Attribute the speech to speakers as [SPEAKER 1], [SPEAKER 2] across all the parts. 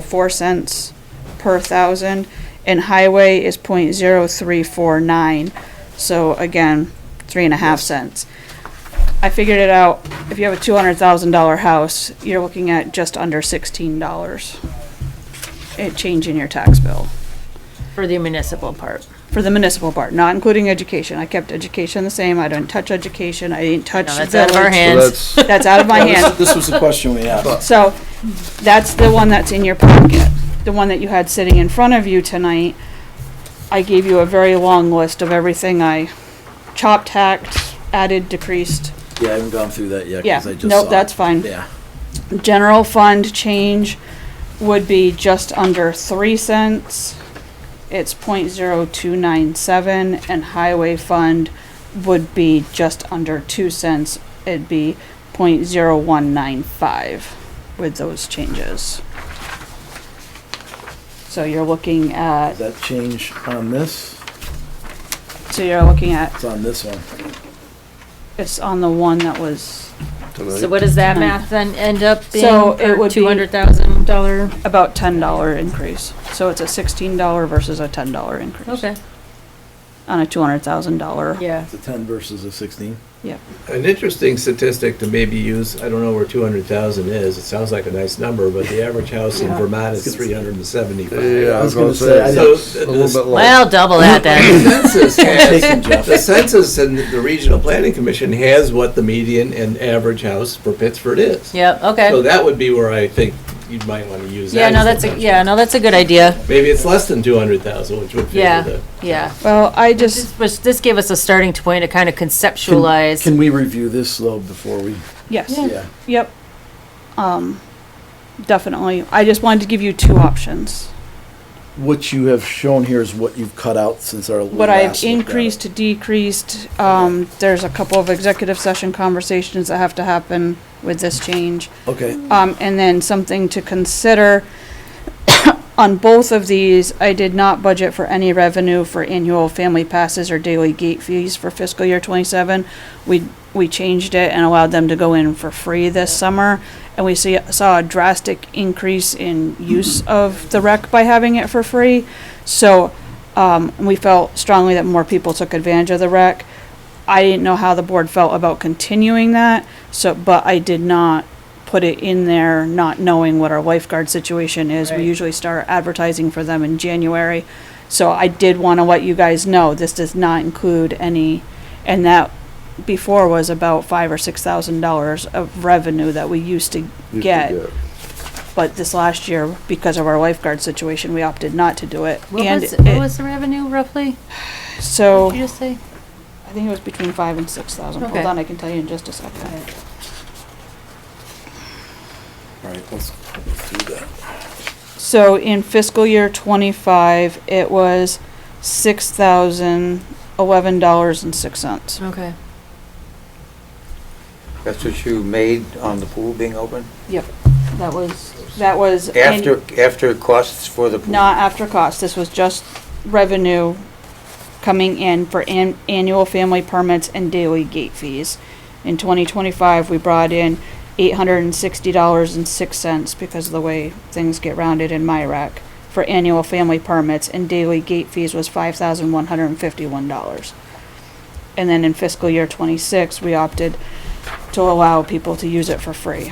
[SPEAKER 1] four cents per thousand, and highway is point zero three four nine, so again, three and a half cents. I figured it out, if you have a two hundred thousand dollar house, you're looking at just under sixteen dollars. It change in your tax bill,
[SPEAKER 2] For the municipal part.
[SPEAKER 1] for the municipal part, not including education, I kept education the same, I didn't touch education, I didn't touch
[SPEAKER 2] No, that's out of our
[SPEAKER 1] village.
[SPEAKER 2] hands.
[SPEAKER 3] So that's,
[SPEAKER 1] That's out of my hands.
[SPEAKER 3] this- this was the question we had.
[SPEAKER 1] So, that's the one that's in your pocket, the one that you had sitting in front of you tonight. I gave you a very long list of everything I chopped, hacked, added, decreased.
[SPEAKER 3] Yeah, I haven't gone through that yet,
[SPEAKER 1] Yeah,
[SPEAKER 3] because I just saw.
[SPEAKER 1] nope, that's
[SPEAKER 3] it.
[SPEAKER 1] fine.
[SPEAKER 3] Yeah,
[SPEAKER 1] General fund change would be just under three cents. It's point zero two nine seven, and highway fund would be just under two cents. It'd be point zero one nine five with those changes. So you're looking at,
[SPEAKER 3] does that change on this?
[SPEAKER 1] so you're looking at,
[SPEAKER 3] It's on this one.
[SPEAKER 1] it's on the one that was
[SPEAKER 2] So what does that math then end up being
[SPEAKER 1] So it
[SPEAKER 2] per
[SPEAKER 1] would be-
[SPEAKER 2] two hundred thousand dollar?
[SPEAKER 1] about ten dollar increase. So it's a sixteen dollar versus a ten dollar increase.
[SPEAKER 2] Okay,
[SPEAKER 1] on a two hundred thousand dollar.
[SPEAKER 2] yeah.
[SPEAKER 3] It's a ten versus a sixteen.
[SPEAKER 4] An interesting statistic to maybe use, I don't know where two hundred thousand is, it sounds like a nice number, but the average house in Vermont is three hundred and seventy-five.
[SPEAKER 3] I
[SPEAKER 5] Yeah, I
[SPEAKER 3] was
[SPEAKER 5] was
[SPEAKER 3] gonna
[SPEAKER 5] gonna say,
[SPEAKER 3] say,
[SPEAKER 5] it's
[SPEAKER 4] I
[SPEAKER 5] a
[SPEAKER 4] know.
[SPEAKER 5] little bit low.
[SPEAKER 2] Well, double that then.
[SPEAKER 4] Census
[SPEAKER 3] Taken,
[SPEAKER 4] has-
[SPEAKER 3] Jeff.
[SPEAKER 4] The census and the Regional Planning Commission has what the median and average house for Pittsford is.
[SPEAKER 2] Yep,
[SPEAKER 4] So
[SPEAKER 2] okay.
[SPEAKER 4] that would be where I think you might want to use that.
[SPEAKER 2] Yeah, no,
[SPEAKER 4] as
[SPEAKER 2] that's a,
[SPEAKER 4] measure.
[SPEAKER 2] yeah, no, that's a good idea.
[SPEAKER 4] Maybe it's less than two hundred thousand, which would
[SPEAKER 2] Yeah.
[SPEAKER 4] favor
[SPEAKER 2] Yeah.
[SPEAKER 1] Well, I just,
[SPEAKER 2] This was, this gave us a starting point to kind of conceptualize.
[SPEAKER 3] Can we review this slow before we?
[SPEAKER 1] yes,
[SPEAKER 3] Yeah.
[SPEAKER 1] yep. Um, definitely. I just wanted to give you two options.
[SPEAKER 3] What you have shown here is what you've cut out since our last.
[SPEAKER 1] What I've
[SPEAKER 3] look at it.
[SPEAKER 1] increased, decreased, um, there's a couple of executive session conversations that have to happen with this change.
[SPEAKER 3] Okay,
[SPEAKER 1] Um, and then something to consider. On both of these, I did not budget for any revenue for annual family passes or daily gate fees for fiscal year twenty-seven. We, we changed it and allowed them to go in for free this summer. And we see, saw a drastic increase in use of the rec by having it for free. So, um, we felt strongly that more people took advantage of the rec. I didn't know how the board felt about continuing that, so, but I did not put it in there, not knowing what our lifeguard situation is. We
[SPEAKER 2] Right.
[SPEAKER 1] usually start advertising for them in January. So I did want to let you guys know, this does not include any, and that before was about five or six thousand dollars of revenue that we used to
[SPEAKER 5] You
[SPEAKER 1] get.
[SPEAKER 5] forget.
[SPEAKER 1] But this last year, because of our lifeguard situation, we opted not to do it.
[SPEAKER 2] What
[SPEAKER 1] And
[SPEAKER 2] was, what
[SPEAKER 1] it-
[SPEAKER 2] was the revenue roughly?
[SPEAKER 1] So.
[SPEAKER 2] Did you just say?
[SPEAKER 1] I think it was between five and six thousand. Hold
[SPEAKER 2] Okay.
[SPEAKER 1] on, I can tell you in just a second.
[SPEAKER 3] all right, let's let's do that.
[SPEAKER 1] So in fiscal year twenty-five, it was six thousand eleven dollars and six cents.
[SPEAKER 2] Okay.
[SPEAKER 6] That's what you made on the pool being open?
[SPEAKER 1] Yep, that was, that was. in-
[SPEAKER 6] After, after costs for the pool?
[SPEAKER 1] Not after cost, this was just revenue coming in for an- annual family permits and daily gate fees. In twenty twenty-five, we brought in eight hundred and sixty dollars and six cents because of the way things get rounded in MyRac for annual family permits and daily gate fees was five thousand one hundred and fifty-one dollars. And then in fiscal year twenty-six, we opted to allow people to use it for free.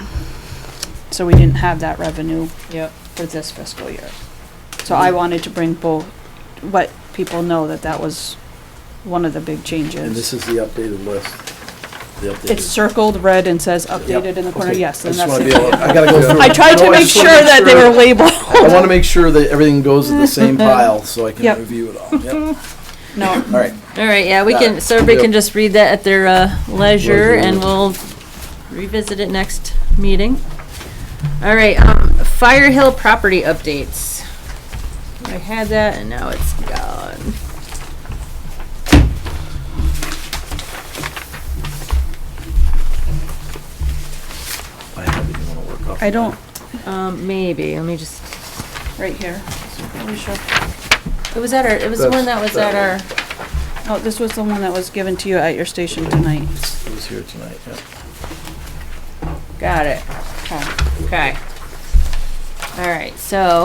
[SPEAKER 1] So we didn't have that revenue
[SPEAKER 2] Yep.
[SPEAKER 1] for this fiscal year. So I wanted to bring both, let people know that that was one of the big
[SPEAKER 3] And this
[SPEAKER 1] changes.
[SPEAKER 3] is the updated list. The
[SPEAKER 1] It's
[SPEAKER 3] updated.
[SPEAKER 1] circled red and says
[SPEAKER 3] Yep,
[SPEAKER 1] updated in the corner,
[SPEAKER 3] okay.
[SPEAKER 1] yes,
[SPEAKER 3] I
[SPEAKER 1] and
[SPEAKER 3] just
[SPEAKER 1] that's
[SPEAKER 3] wanna be
[SPEAKER 1] it.
[SPEAKER 3] able, I gotta go through.
[SPEAKER 1] I tried
[SPEAKER 3] No,
[SPEAKER 1] to make
[SPEAKER 3] just
[SPEAKER 1] sure
[SPEAKER 3] wanna
[SPEAKER 1] that they were
[SPEAKER 3] I want to
[SPEAKER 1] labeled.
[SPEAKER 3] make sure that everything goes in the same pile so I
[SPEAKER 1] Yep.
[SPEAKER 3] can review it all. Yep. All
[SPEAKER 1] No,
[SPEAKER 3] right.
[SPEAKER 2] All right, yeah, we
[SPEAKER 3] Got
[SPEAKER 2] can,
[SPEAKER 3] it.
[SPEAKER 2] so everybody
[SPEAKER 3] Yep.
[SPEAKER 2] can just read that at their uh, leisure,
[SPEAKER 3] Leisure.
[SPEAKER 2] and we'll revisit it next meeting. All right, um, Fire Hill property updates. I had that, and now it's gone.
[SPEAKER 3] I have it. You wanna work off
[SPEAKER 1] I don't,
[SPEAKER 2] Um, maybe, let me just,
[SPEAKER 1] right here. Pretty sure.
[SPEAKER 2] it was at our, it was the one that was at our,
[SPEAKER 1] Oh, this was the one that was given to you at your station tonight.
[SPEAKER 3] It was here tonight, yeah.
[SPEAKER 2] got it,
[SPEAKER 1] Okay.
[SPEAKER 2] okay. All right, so